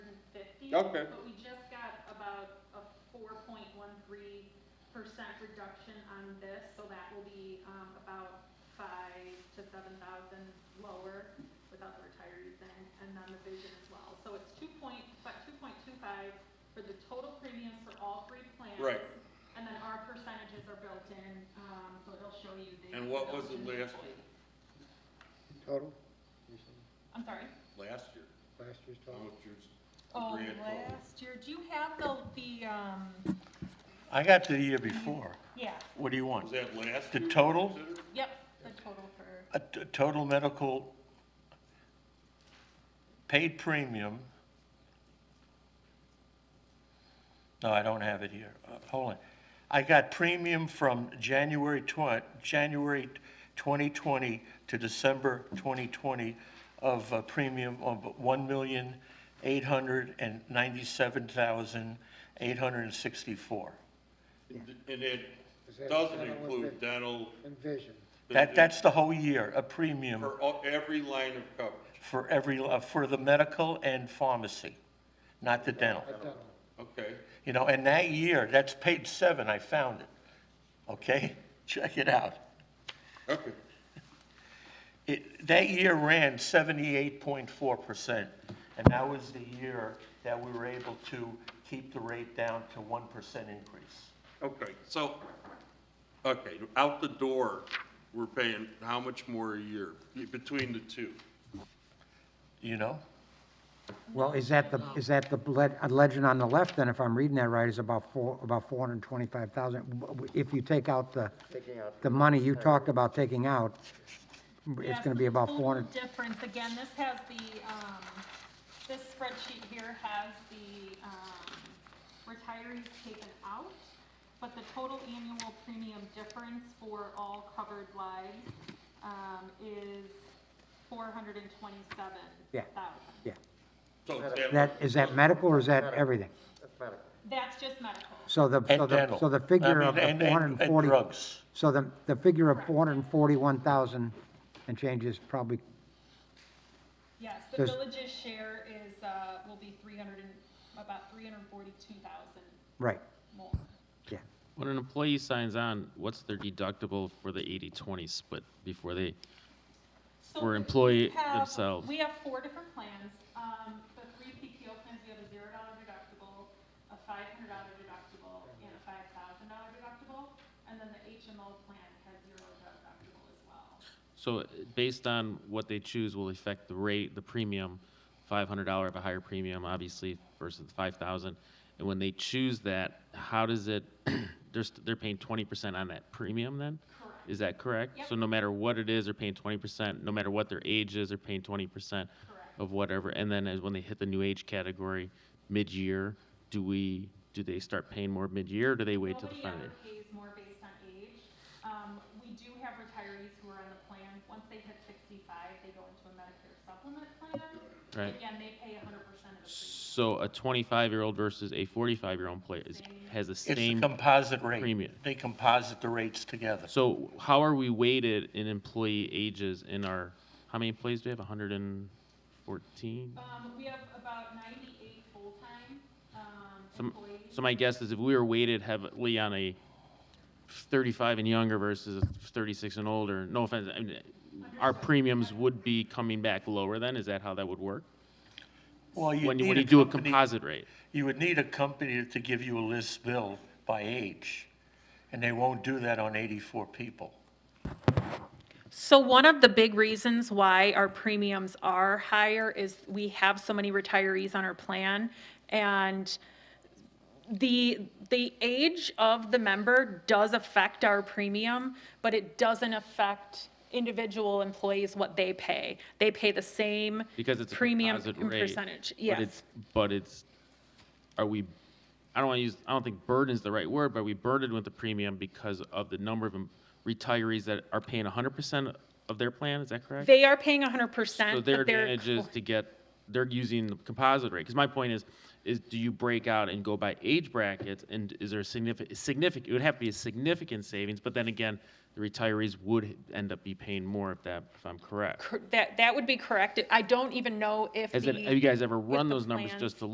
Okay. But we just got about a four point one three percent reduction on this, so that will be, um, about five to seven thousand lower without the retirees and, and then the vision as well. So it's two point, about two point two five for the total premiums for all three plans. Right. And then our percentages are built in, um, so it'll show you the. And what was reduction in it employee. last Total? You said I'm sorry? Last year, Last year's how total? much yours- Oh, Grand total. last year, do you have the, the, um, I got to the year before. yeah, What do you was want? that last The year total? considered? yep, the total for. A t- total medical paid premium. No, I don't have it here. Uh, Hold on. I got premium from January twen, January 2020 to December 2020 of a premium of 1,897,864. And and Is it doesn't that dental and include vi- dental. And vision, That, that's the whole year, a premium. For all- every line of coverage, For every, uh, for the medical and pharmacy, not the dental. a dental. okay? You know, and that year, that's page seven, I found it. Okay, check it out. Okay. It, that year ran seventy-eight point four percent, and that was the year that we were able to keep the rate down to one percent increase. Okay, so, okay, out the door, we're paying how much more a year between the two? You know? Well, is that the, is that the le- uh, legend on the left then, if I'm reading that right, is about four, about four hundred and twenty-five thousand? If you take out the, the money you talked about taking out, it's Yes, gonna be the about total four hundred, Difference, again, this has the, um, this spreadsheet here has the, um, retirees taken out, but the total annual premium difference for all covered lives, um, is four hundred and twenty-seven Yeah. thousand. yeah. So that- That, is that medical or is that everything? That's just medical. So the, so And the, dental. so the I figure mean, of the and- four and- hundred and And forty. drugs. So the, the figure of four hundred and forty-one thousand and change is probably, Yes, the Does- village's share is, uh, will be three hundred and, about three hundred and forty-two thousand right, more. yeah. When an employee signs on, what's their deductible for the 80-20 split before they, So for we employee have- themselves. We have four different plans. Um, the three PPO plans, we have a zero dollar deductible, a five hundred dollar deductible, and a five thousand dollar deductible. And then the HMO plan has zero deductible as well. so uh, based on what they choose will affect the rate, the premium, $500 of a higher premium, obviously, versus the 5,000. And when they choose that, how does it, they're, st- they're paying 20% on that premium then? Correct. Is that correct? Yep. So no matter what it is, they're paying 20%, no matter what their age is, they're paying 20% Correct. of whatever. And then as when they hit the new age category mid-year, do we, do they start paying more mid-year or do they wait till the Nobody final year? ever pays more based on age. Um, we do have retirees who are on the plan, once they hit sixty-five, they go into a Medicare supplement plan. Right. Again, they pay hundred percent of the premium. So a 25-year-old versus a 45-year-old player is, has the It's a same. composite rate. premium. They composite the rates together. So how are we weighted in employee ages in our, how many employees do we have? 114? Um, we have about ninety-eight full-time, um, Some- employees. So my guess is if we were weighted heavily on a 35 and younger versus a 36 and older, no offense, I mean, our premiums would be coming back lower then? Is that how that would work? Well, you When you, need when you do a company- composite rate? You would need a company to give you a list bill by age, and they won't do that on 84 people. So one of the big reasons why our premiums are higher is we have so many retirees on our plan. And the, the age of the member does affect our premium, but it doesn't affect individual employees what they pay. They pay the same Because it's a premium composite and rate, percentage. but Yes, it's- But it's, are we, I don't want to use, I don't think burden's the right word, but are we burdened with the premium because of the number of em- retirees that are paying 100% of their plan? Is that correct? they are paying hundred percent. So their advantage is to get, they're using the composite rate, because my point is, is do you break out and go by age brackets, and is there significant, significant, it would have to be a significant savings, but then again, the retirees would end up be paying more if that, if I'm correct. That, that would be correct. I don't even know if Has the. it, have you guys ever with run the those numbers plans. just to